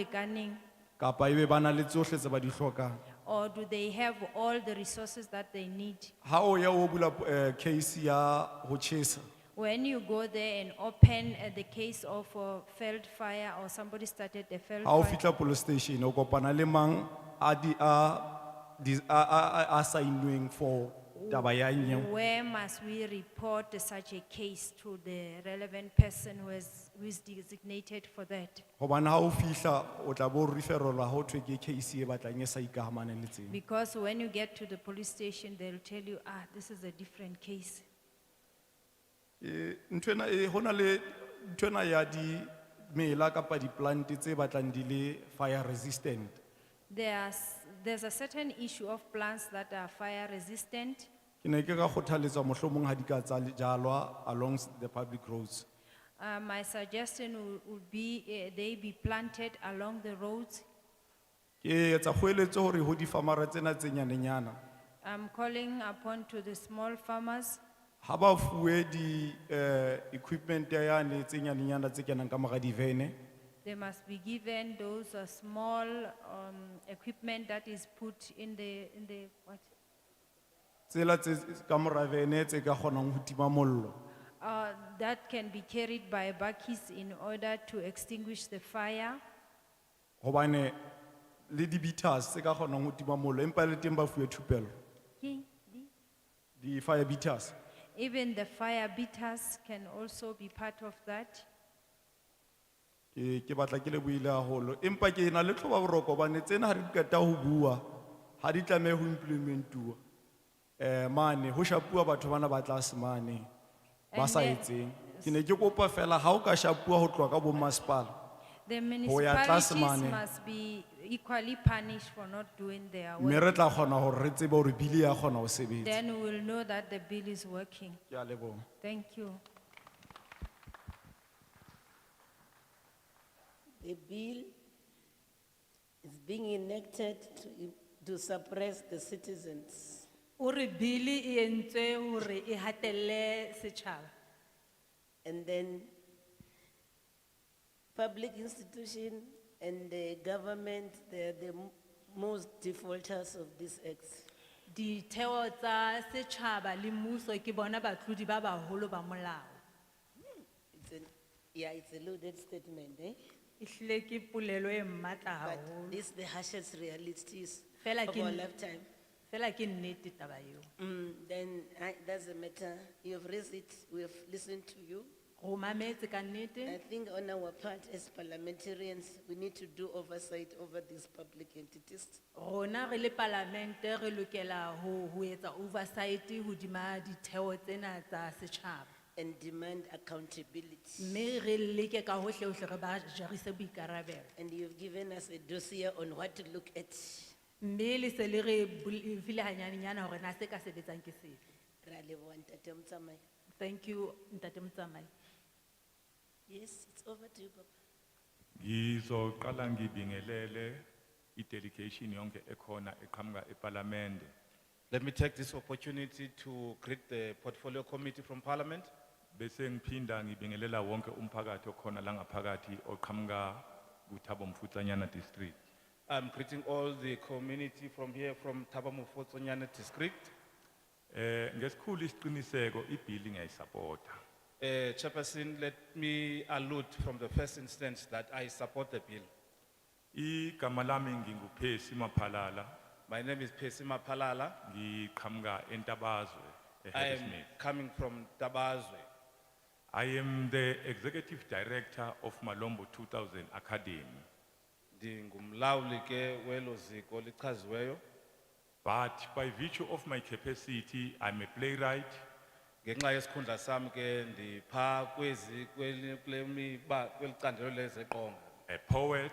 lekaneng kapa ebe ba na le tsohle tse ba di hlokang or do they have all the resources that they need? ha o ya o bula eh, case ya ho tjhesa When you go there and open uh, the case of a failed fire or somebody started a failed ha o fire, fihla police station o kopana le mang a di a di- a a- a- a sign-nweng for taba ya nyewe where must we report such a case to the relevant person who is, who is designated for that? hobane ha o fihla o tla bo referelwa ha ho thwe ke case e batlang e sa ikahamaneng le tsena Because when you get to the police station, they'll tell you, ah, this is a different case. Eh, nthwena eh hona le nthwena ya di mela kapa di plant tse batlang di le fire resistant There's, there's a certain issue of plants that are fire resistant. ke ne ke ka kgothaletsa mohlomong ha di ka tsa jalwa along the public roads Uh, my suggestion would, would be uh, they be planted along the roads. ke etsa kgoeletso hore ho difamara tsena tse nyanenyana I'm calling upon to the small farmers ha ba fuwe di-equipment yane tse nyanenyana tse kenang ka mora divene They must be given those uh, small um, equipment that is put in the, in the, what? tsela tse ka mora vene tse ka kgonang ho tima mollo Uh, that can be carried by buggies in order to extinguish the fire. hobane le di-beaters tse ka kgonang ho tima mollo empa le teng ba fuwe thupello di-fire beaters Even the fire beaters can also be part of that. ke ke batla ke lebohile haholo empa ke na le tlhoba boroko hobane tsena ha re di qeta ho bua ha di tlamehe ho implementuwa um mane ho shapuwa batho bana ba tlase mane ba And sa then- etseng ke ne ke kopa fela ha o ka shapuwa ho tloha ka bommasepala The Ho ya tlase municipalities mane. must be equally punished for not doing their mme work. re tla kgona hore re tsebe hore bile ya kgona ho sebetsa Then we will know that the bill is working. ke a leboha Thank you. The bill is being enacted to, to suppress the citizens. Uri bili i ente uri i hatele sechava. And then public institution and the government, they're the m- most defaulters of this act. Di tewa za sechava li muso ki bona ba tludi ba ba holo ba molao. It's a, yeah, it's a loaded statement, eh? Ihle ki pulelo e mata But haholo. this the harshest realities Fela of ke our n- lifetime. Fela ki neti taba yo. Mm, then, I, that's a matter, you have raised it, we have listened to you. Romametse ka neti, I think on our part as parliamentarians, we need to do oversight over these public entities. rona re le parlamente re lokela ho ho etsa oversight hodima di tewa tsena za sechava. and demand accountability. Me re leke ka hohle hohle re ba jarise boikarabelo. And you've given us a dossier on what to look at. Mme le se le re bul- e file hanyaninyana hore na se ka sebetsang ke sefe. Ra leboha, Ntate Mtsamai. Thank you, Ntate Mtsamai. Yes, it's over to you, Papa. Ngizoqala ngibingelele i-delegation yonke ekhona eqhamuka eParliament. Let me take this opportunity to greet the portfolio committee from parliament Bese ngiphinda ngibingelela wonke umphakathi okhona la ngaphakathi oqhamuka kuThabo Mfutsanyana district. I'm greeting all the community from here from Tabamufotonyane district. Eh ngesikhulu isiqiniseko i-bill ngiyayisupporta. Uh, Chairperson, let me allude from the first instance that I support the bill. Igama lami nginguphesi Maphalala, My name is Pesima Palala. ngiqhamuka eNtabazwe I am eHarrismith. coming from Tabazwe. I am the executive director of Malombo 2000 Academy. Ndingumlawuli ke welo ziko lichaziweyo. But by virtue of my capacity, I'm a playwright, Ngenxa yesikhundla sami ke ndipha kwezi kweli kwemiba kwelicandelo lezeqonga. a poet,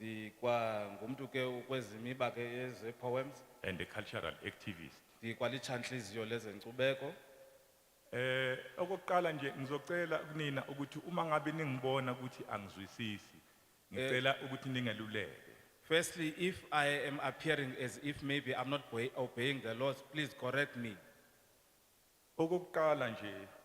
ndikwangumntu ke ukwezimiba ke yezepoems and a cultural activist. ndikwalitshantliziyo lezenkcubeko Eh okokuqala nje ngizocela kunina ukuthi uma ngabe ningibona ukuthi angizwisisi, ngicela ukuthi ningeluleke. firstly if i am appearing as if maybe i'm not obey- obeying the laws please correct me Okokuqala nje